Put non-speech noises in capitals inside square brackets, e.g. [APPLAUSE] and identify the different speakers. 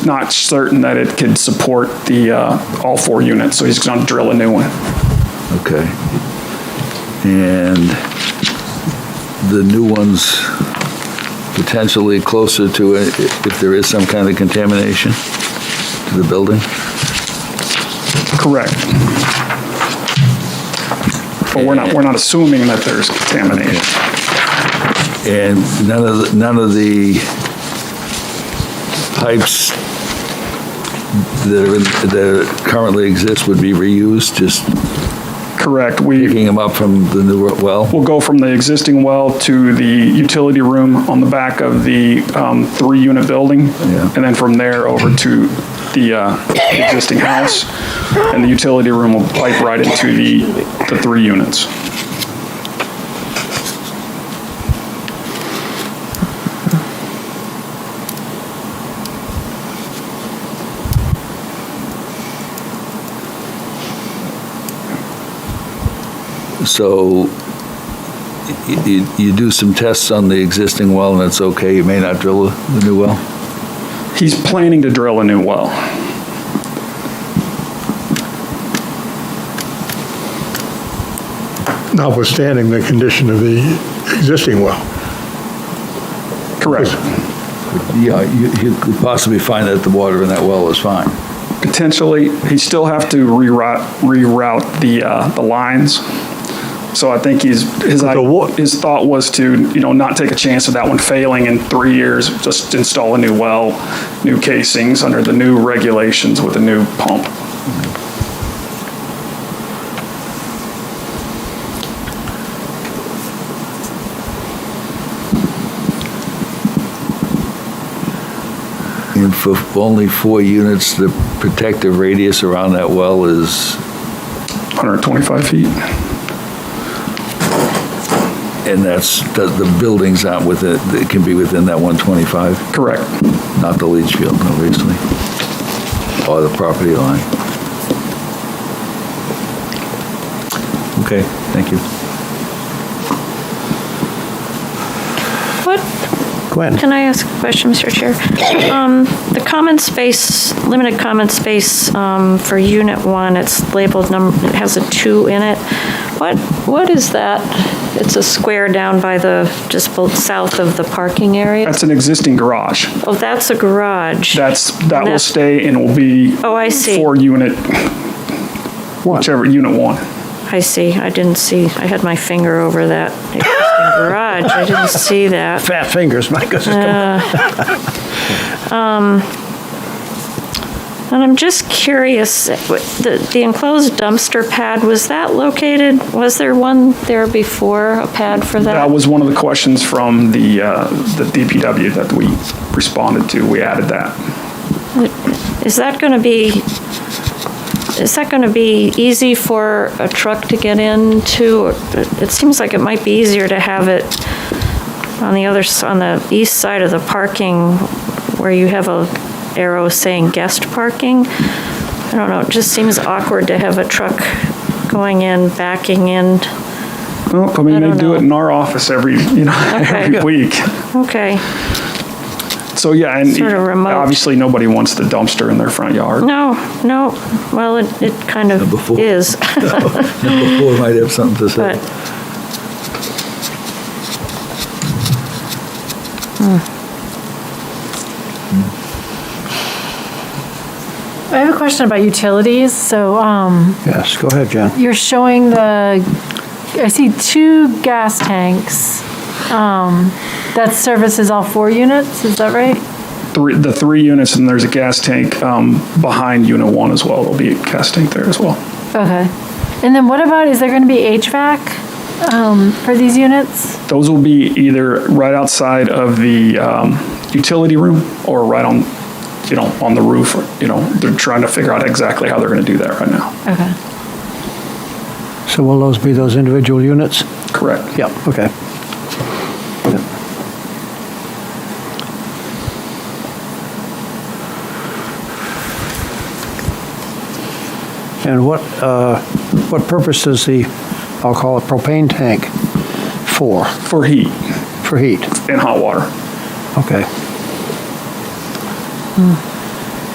Speaker 1: not certain that it could support the, uh, all four units, so he's gonna drill a new one.
Speaker 2: Okay. And the new one's potentially closer to it if there is some kind of contamination to the building?
Speaker 1: Correct. But we're not, we're not assuming that there's contamination.
Speaker 2: And none of, the- none of the pipes that are, in- that currently exist would be reused, just
Speaker 1: Correct. We
Speaker 2: picking them up from the new well?
Speaker 1: will go from the existing well to the utility room on the back of the um, three-unit building.
Speaker 2: Yeah.
Speaker 1: And then from there over to the uh, existing house. And the utility room will pipe right into the, the three units.
Speaker 2: So y- y- you do some tests on the existing well and it's okay, you may not drill the new well?
Speaker 1: He's planning to drill a new well.
Speaker 3: notwithstanding the condition of the existing well.
Speaker 1: Correct.
Speaker 2: Yeah, you, you could possibly find that the water in that well is fine.
Speaker 1: Potentially, he still have to reroute, reroute the, uh, the lines. So I think he's, his,
Speaker 3: the wa-
Speaker 1: his thought was to, you know, not take a chance of that one failing in three years, just install a new well, new casings under the new regulations with a new pump.
Speaker 2: And for only four units, the protective radius around that well is,
Speaker 1: 125 feet?
Speaker 2: and that's, the, the buildings aren't within, it can be within that 125,
Speaker 1: Correct.
Speaker 2: not the leach field, obviously, or the property line. Okay, thank you.
Speaker 4: What,
Speaker 3: Gwen?
Speaker 4: can I ask a question, Mr. Chair? Um, The common space, limited common space um, for Unit 1, it's labeled number, it has a 2 in it. What, what is that? It's a square down by the, just bo- south of the parking area?
Speaker 1: That's an existing garage.
Speaker 4: Oh, that's a garage.
Speaker 1: That's, that will
Speaker 4: That-
Speaker 1: stay and will be.
Speaker 4: Oh, I see.
Speaker 1: Four unit, whichever, unit one.
Speaker 4: I see, I didn't see, I had my finger over that existing garage, I didn't see that.
Speaker 3: Fat fingers, my goodness.
Speaker 4: Uh, [LAUGHS] um, And I'm just curious, the the enclosed dumpster pad, was that located, was there one there before, a pad for that?
Speaker 1: That was one of the questions from the, uh, the DPW that we responded to. We added that.
Speaker 4: Is that going to be, is that going to be easy for a truck to get into? It seems like it might be easier to have it on the other, s- on the east side of the parking where you have a arrow saying guest parking. I don't know, it just seems awkward to have a truck going in, backing in.
Speaker 1: Well, I
Speaker 4: I
Speaker 1: mean, they
Speaker 4: don't
Speaker 1: do it
Speaker 4: know.
Speaker 1: in our office every, you know, every
Speaker 4: Okay.
Speaker 1: week.
Speaker 4: Okay.
Speaker 1: So, yeah, and
Speaker 4: Sort of remote.
Speaker 1: obviously, nobody wants the dumpster in their front yard.
Speaker 4: No, no, well, it, it kind
Speaker 2: Number
Speaker 4: of
Speaker 2: four.
Speaker 4: is,
Speaker 2: Number four might have something to say.
Speaker 4: but,
Speaker 5: I have a question about utilities. So um,
Speaker 3: Yes, go ahead, John.
Speaker 5: you're showing the, I see two gas tanks um, that services all four units, is that right?
Speaker 1: Three, the three units, and there's a gas tank um, behind unit one as well. There'll be a gas tank there as well.
Speaker 5: Okay. And then what about, is there going to be HVAC um, for these units?
Speaker 1: Those will be either right outside of the um, utility room or right on, you know, on the roof. Or, you know, they're trying to figure out exactly how they're going to do that right now.
Speaker 5: Okay.
Speaker 6: So will those be those individual units?
Speaker 1: Correct.
Speaker 6: Yeah, okay. And what, uh, what purpose is the, I'll call it propane tank for,
Speaker 1: For heat
Speaker 6: for heat?
Speaker 1: and hot water.
Speaker 6: Okay.